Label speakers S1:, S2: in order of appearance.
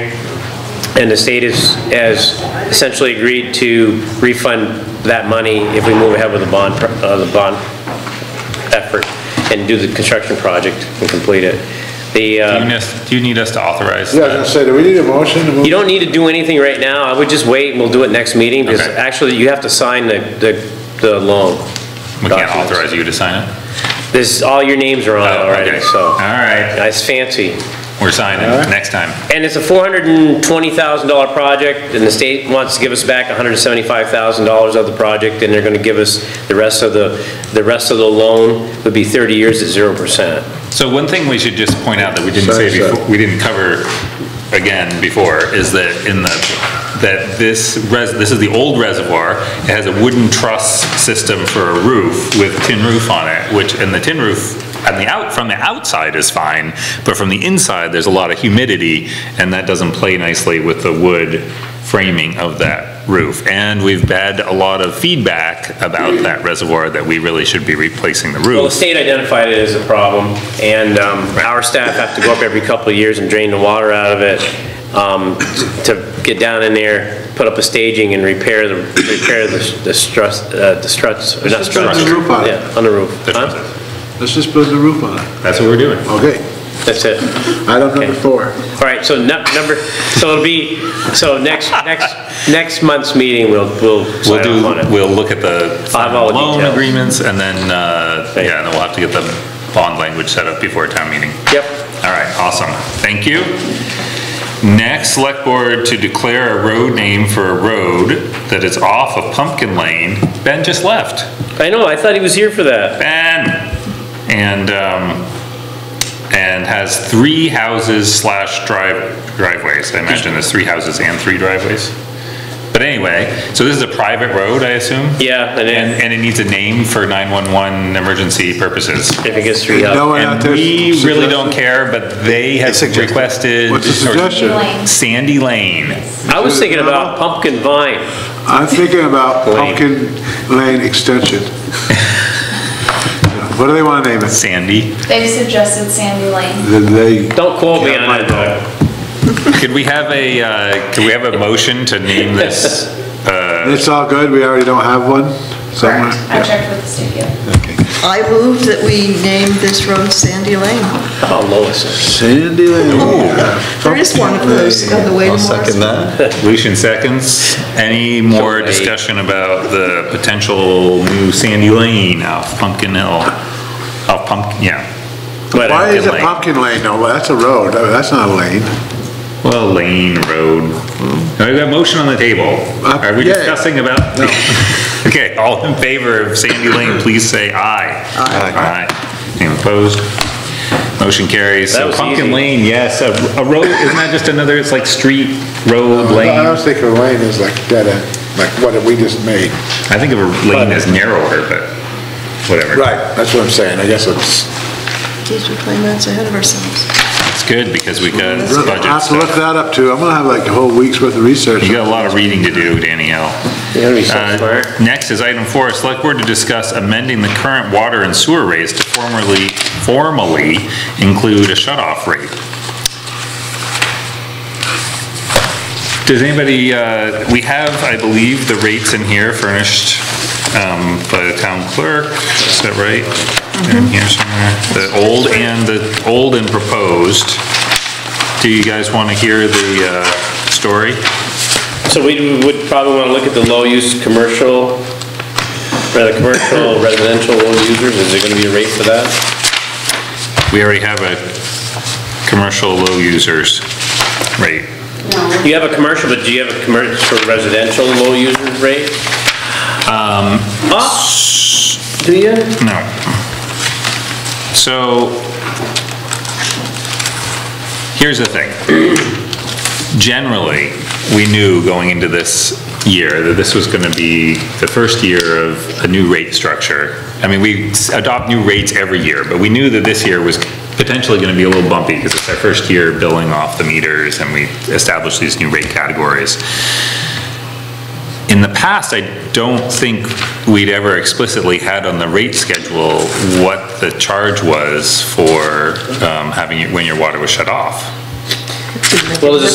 S1: And the state has, has essentially agreed to refund that money if we move ahead with the bond, pro- uh, the bond effort and do the construction project and complete it. The,
S2: Do you
S1: uh,
S2: need us- do you need us to authorize
S3: Yeah, I was gonna
S2: that?
S3: say, do we need a motion to move?
S1: you don't need to do anything right now, I would just wait and we'll do it next meeting, because
S2: Okay.
S1: actually you have to sign the, the, the loan.
S2: We can't
S1: documents.
S2: authorize you to sign it?
S1: This, all your names are on it
S2: Oh,
S1: already,
S2: okay.
S1: so.
S2: All right,
S1: It's fancy.
S2: we're signing next time.
S1: And it's a $420,000 project, and the state wants to give us back $175,000 of the project, and they're going to give us the rest of the, the rest of the loan would be 30 years at 0%.
S2: So one thing we should just point out that we didn't
S3: Sorry,
S2: say
S3: sorry.
S2: before, we didn't cover again before, is that in the, that this res, this is the old reservoir, it has a wooden truss system for a roof with tin roof on it, which, and the tin roof, on the out, from the outside is fine, but from the inside, there's a lot of humidity, and that doesn't play nicely with the wood framing of that roof. And we've had a lot of feedback about that reservoir, that we really should be replacing the
S1: Well, the
S2: roof.
S1: state identified it as a problem, and um, our staff have to go up every couple of years and drain the water out of it um, to get down in there, put up a staging and repair the, repair the the struts, uh, the struts, or not
S3: Just put the
S1: struts.
S3: roof on it.
S1: Yeah, on the roof.
S2: The
S1: Huh?
S2: truss.
S3: Let's just put the roof on it.
S2: That's what we're doing.
S3: Okay,
S1: That's it.
S3: item number four.
S1: All right, so nu- number, so it'll be, so next, next, next month's meeting, we'll, we'll
S2: We'll
S1: sign
S2: do,
S1: off on it.
S2: we'll look at the
S1: I'll have all the
S2: loan
S1: details.
S2: agreements, and then, uh,
S1: Okay.
S2: yeah, and then we'll have to get the bond language set up before town meeting.
S1: Yep,
S2: All right, awesome, thank you. Next, select board to declare a road name for a road that is off of Pumpkin Lane. Ben just left.
S1: I know, I thought he was here for that.
S2: Ben! And, um, and has three houses slash drive, driveways. I imagine there's three houses and three driveways. But anyway, so this is a private road, I assume?
S1: Yeah, and
S2: And,
S1: then
S2: and it needs a name for 911 emergency purposes.
S1: if it gets three
S3: No
S1: up.
S3: one out
S2: And
S3: there
S2: we really don't
S3: suggested-
S2: care, but they have
S3: suggested.
S2: requested.
S3: What's the suggestion?
S2: Sandy Lane.
S1: I was thinking about pumpkin vine.
S3: I'm thinking about
S1: Lane.
S3: Pumpkin Lane Extension. What do they wanna name it?
S2: Sandy.
S4: They've suggested Sandy Lane.
S3: Did they,
S1: Don't quote me on it, though.
S2: Could we have a, uh, could we have a motion to name this?
S3: it's all good, we already don't have one somewhere?
S4: Correct. I checked with the studio.
S5: I move that we name this road Sandy Lane.
S1: Oh, Lois.
S3: Sandy Lane.
S5: There is one of those on the way to
S6: I'll
S5: Morrisville.
S6: second that.
S2: Lucian seconds. Any more discussion about the potential new Sandy Lane off Pumpkin Hill? Off Pumpkin, yeah. But
S3: Why is it
S2: Lane.
S3: Pumpkin Lane? No, that's a road, Oh, that's not a lane.
S2: Well, Lane Road. Now, We've got a motion on the table.
S3: Uh,
S2: Are we
S3: yeah.
S2: discussing about? Okay, all in favor of Sandy Lane, please say aye. Aye. Aye. Anyone opposed? Motion carries.
S1: That
S2: So
S1: was
S2: Pumpkin
S1: easy.
S2: Lane, yes, a a road, isn't that just another, it's like street, road,
S3: I
S2: lane?
S3: was thinking lane is like dead end, like what we just made.
S2: I think of a lane as narrower, but whatever.
S3: Right, that's what I'm saying, I guess it's.
S5: Geez, we're playing minutes ahead of ourselves.
S2: It's good because we got
S3: I
S2: budget
S3: have to look
S2: stuff.
S3: that up too, I'm gonna have like a whole week's worth of research.
S2: You got a lot of reading to do, Danielle.
S1: You're gonna be so smart.
S2: Uh, Next is item four, select board to discuss amending the current water and sewer rates to formerly, formally include a shut-off rate. Does anybody, uh, we have, I believe, the rates in here furnished um, by the town clerk, is that right? They're In here somewhere, the old and, the old and proposed. Do you guys want to hear the uh, story?
S1: So we would probably want to look at the low-use commercial, rather commercial residential low users, is there going to be a rate for that?
S2: We already have a commercial low users rate.
S1: You have a commercial, but do you have a commercial residential low user rate? Um. Do you?
S2: No. So, here's the thing. Generally, we knew going into this year that this was going to be the first year of a new rate structure. I mean, we s- adopt new rates every year, but we knew that this year was potentially going to be a little bumpy because it's our first year billing off the meters and we established these new rate categories. In the past, I don't think we'd ever explicitly had on the rate schedule what the charge was for um, having, it when your water was shut off.
S5: Didn't make
S1: Well,
S5: it
S1: there's a